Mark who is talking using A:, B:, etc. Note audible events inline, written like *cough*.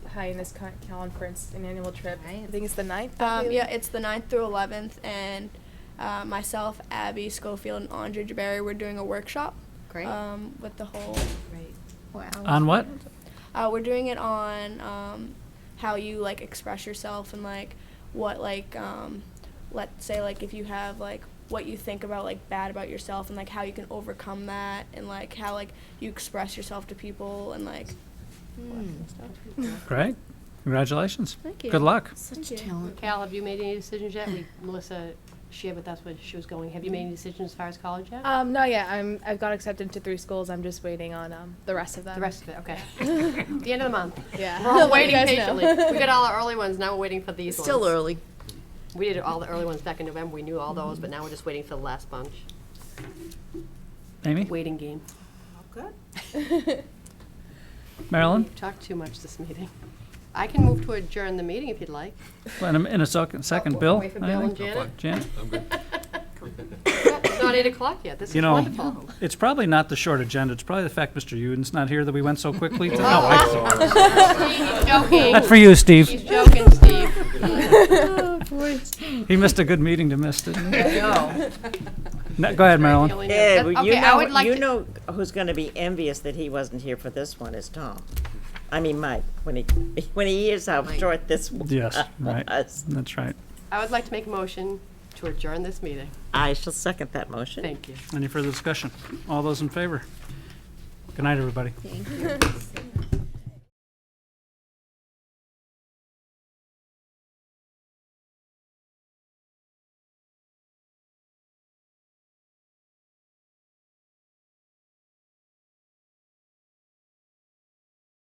A: high in this con- conference, an annual trip. I
B: Right.
A: think it's the ninth.
C: Um,
A: probably?
C: yeah, it's the 9th through 11th, and uh, myself, Abby Schofield, and Andre Jaberry, we're doing a workshop.
B: Great.
C: Um, with the whole,
B: Right. Wow.
D: On what?
C: uh, we're doing it on um, how you like express yourself and like what like um, let's say like if you have like what you think about like bad about yourself and like how you can overcome that and like how like you express yourself to people and like all that kind of stuff.
D: Great. Congratulations.
B: Thank you.
D: Good luck.
B: Such
C: Thank you.
B: talent.
E: Cal, have you made any decisions yet? We, Melissa Shea, but that's where she was going. Have you made any decisions as far as college yet?
A: Um, no, yeah, I'm, I've got accepted to three schools. I'm just waiting on um, the rest of them.
E: The rest of it,
B: *laughs*
E: okay. The end of the month.
A: Yeah. *laughs*
E: We're all
A: Let you
E: waiting
A: guys know.
E: patiently. We got all our early ones, now we're waiting for
B: It's
E: these ones.
B: still early.
E: We did all the early ones back in November, we knew all those, but now we're just waiting for the last bunch.
D: Amy?
E: Waiting game.
D: Marilyn?
E: We've talked too much this meeting. I can move to adjourn the meeting if you'd like.
D: Well, In a, in a second, second,
E: Oh,
D: Bill?
E: wait for Bill and
D: anything?
E: Janet.
D: Janet?
E: It's not eight o'clock yet, this is
D: You know-
E: wonderful.
D: It's probably not the short agenda. It's probably the fact Mr. Uden's not here that we went so quickly.
E: *laughs*
D: to- No, I-
E: He's joking,
D: Not for you,
E: he's
D: Steve.
E: joking, Steve.
D: He missed a good meeting to miss, didn't he? No, Go ahead, Marilyn.
F: Yeah, well, you
E: Okay, I
F: know,
E: would like
F: you
E: to-
F: know who's going to be envious that he wasn't here for this one is Tom. I mean, Mike, when he *laughs* when he hears how short this one
D: Yes, right.
F: was.
D: That's right.
E: I would like to make a motion to adjourn this meeting.
F: *laughs* I shall second that motion.
E: Thank you.
D: Any further discussion? All those in favor? Good night, everybody.